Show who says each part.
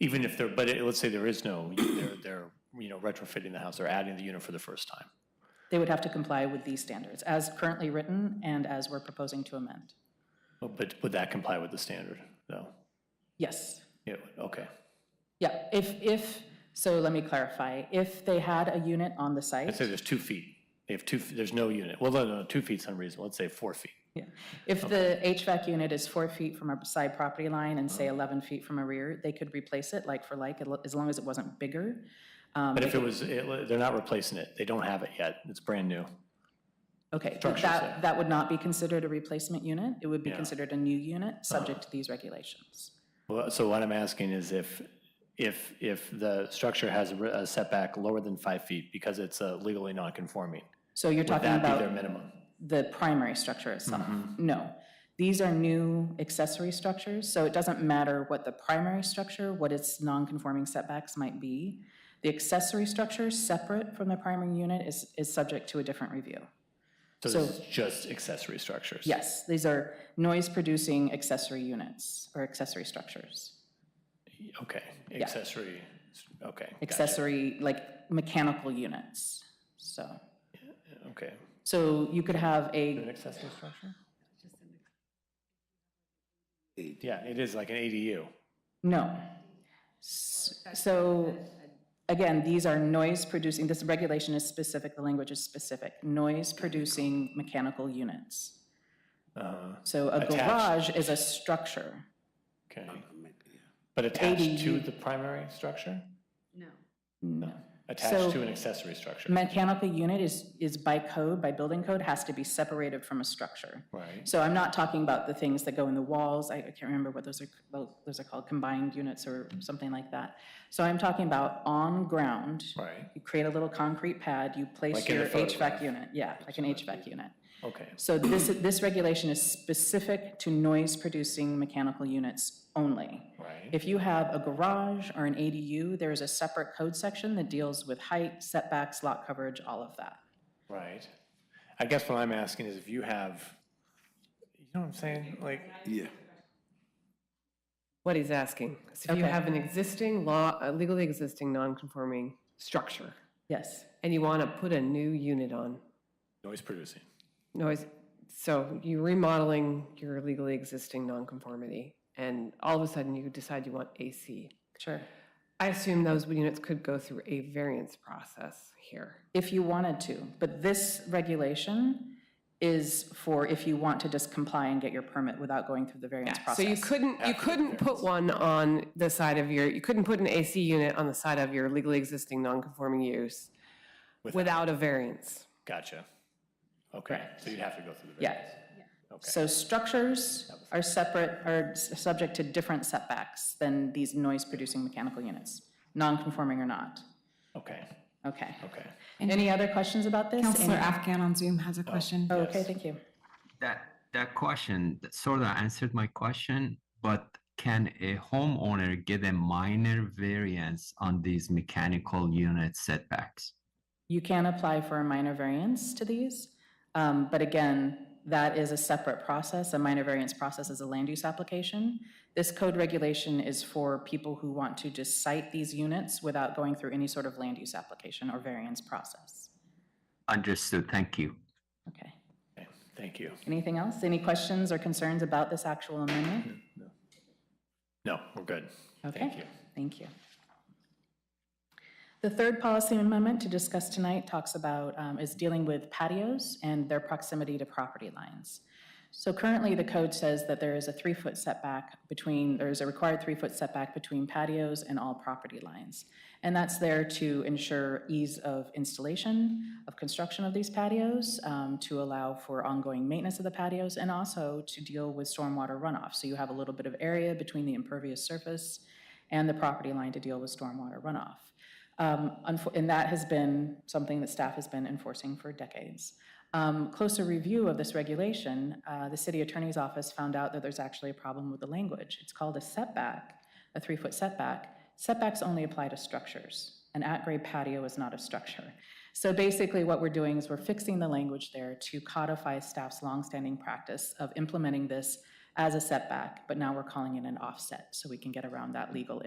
Speaker 1: Even if there, but it- let's say there is no, they're, they're, you know, retrofitting the house, they're adding the unit for the first time.
Speaker 2: They would have to comply with these standards as currently written and as we're proposing to amend.
Speaker 1: But- But would that comply with the standard? No?
Speaker 2: Yes.
Speaker 1: Yeah, okay.
Speaker 2: Yeah, if, if, so let me clarify. If they had a unit on the
Speaker 1: Let's
Speaker 2: site,
Speaker 1: say there's two feet. They have two, there's no unit. Well, no, no, two feet's unreasonable. Let's say four feet.
Speaker 2: yeah. if the HVAC unit is four feet from a side property line and
Speaker 1: Uh-huh.
Speaker 2: say 11 feet from a rear, they could replace it like for like, as long as it wasn't bigger. Um,
Speaker 1: But if it was, it- they're not replacing it. They don't have it yet. It's brand new.
Speaker 2: Okay, but
Speaker 1: Structures there.
Speaker 2: that, that would not be considered a replacement unit. It would be
Speaker 1: Yeah.
Speaker 2: considered a new unit, subject to these regulations.
Speaker 1: Well, so what I'm asking is if, if, if the structure has a re- a setback lower than five feet because it's uh, legally non-conforming,
Speaker 2: So you're
Speaker 1: would
Speaker 2: talking
Speaker 1: that be
Speaker 2: about
Speaker 1: their minimum?
Speaker 2: the primary structure itself. No. These are new accessory structures, so it doesn't matter what the primary structure, what its non-conforming setbacks might be. The accessory structure, separate from the primary unit, is, is subject to a different review.
Speaker 1: So this is just accessory structures?
Speaker 2: Yes, these are noise-producing accessory units or accessory structures.
Speaker 1: Okay, accessory, okay, gotcha,
Speaker 2: Accessory, like mechanical units, so.
Speaker 1: okay.
Speaker 2: So you could have
Speaker 1: An
Speaker 2: a,
Speaker 1: accessory structure? Yeah, it is like an ADU.
Speaker 2: no. S- So, again, these are noise-producing, this regulation is specific, the language is specific, noise-producing mechanical units.
Speaker 1: Uh,
Speaker 2: So a
Speaker 1: Attached.
Speaker 2: garage is a structure.
Speaker 1: Okay. But attached to
Speaker 2: ADU.
Speaker 1: the primary structure?
Speaker 2: No. So-
Speaker 1: Attached to an accessory structure?
Speaker 2: Mechanical unit is, is by code, by building code, has to be separated from a structure.
Speaker 1: Right,
Speaker 2: So I'm not talking about the things that go in the walls, I I can't remember what those are, well, those are called, combined units or something like that. So I'm talking about on-ground.
Speaker 1: right,
Speaker 2: You create a little concrete pad, you place
Speaker 1: Like in a
Speaker 2: your
Speaker 1: photograph.
Speaker 2: HVAC unit, yeah, like an HVAC unit.
Speaker 1: okay.
Speaker 2: So this, this regulation is specific to noise-producing mechanical units only.
Speaker 1: Right,
Speaker 2: If you have a garage or an ADU, there is a separate code section that deals with height, setbacks, lot coverage, all of that.
Speaker 1: right. I guess what I'm asking is if you have, you know what I'm saying? Like,
Speaker 3: Yeah.
Speaker 4: what he's asking. So if you
Speaker 2: Okay.
Speaker 4: have an existing law, a legally existing non-conforming structure,
Speaker 2: Yes,
Speaker 4: and you want to put a new unit on,
Speaker 1: noise producing.
Speaker 4: noise, so you're remodeling your legally existing nonconformity, and all of a sudden you decide you want AC.
Speaker 2: sure.
Speaker 4: I assume those units could go through a variance process here.
Speaker 2: If you wanted to, but this regulation is for if you want to just comply and get your permit without going through the variance process.
Speaker 4: So you couldn't, you couldn't put one on the side of your, you couldn't put an AC unit on the side of your legally existing nonconforming use without a variance.
Speaker 1: Gotcha. Okay, so you'd have to go through the.
Speaker 2: Yeah. So structures are separate, are s- subject to different setbacks than these noise-producing mechanical units, non-conforming or not.
Speaker 1: Okay,
Speaker 2: Okay.
Speaker 1: okay.
Speaker 2: Any other questions about this?
Speaker 5: Counselor
Speaker 2: Any-
Speaker 5: Afghan on Zoom has a question.
Speaker 2: Oh, Okay, thank you.
Speaker 6: That that question sort of answered my question, but can a homeowner get a minor variance on these mechanical unit setbacks?
Speaker 2: You can apply for a minor variance to these, um, but again, that is a separate process. A minor variance process is a land use application. This code regulation is for people who want to just cite these units without going through any sort of land use application or variance process.
Speaker 6: Understood. Thank you.
Speaker 2: Okay.
Speaker 1: Okay, Thank you.
Speaker 2: Anything else? Any questions or concerns about this actual amendment?
Speaker 1: No, we're good. Thank you.
Speaker 2: Okay, thank you. The third policy amendment to discuss tonight talks about, um, is dealing with patios and their proximity to property lines. So currently, the code says that there is a three-foot setback between, there is a required three-foot setback between patios and all property lines. And that's there to ensure ease of installation, of construction of these patios, um, to allow for ongoing maintenance of the patios, and also to deal with stormwater runoff. So you have a little bit of area between the impervious surface and the property line to deal with stormwater runoff. Um, unfo- And that has been something that staff has been enforcing for decades. Um, Closer review of this regulation, uh, the city attorney's office found out that there's actually a problem with the language. It's called a setback, a three-foot setback. Setbacks only apply to structures. An at-grade patio is not a structure. So basically, what we're doing is we're fixing the language there to codify staff's longstanding practice of implementing this as a setback, but now we're calling it an offset, so we can get around that legal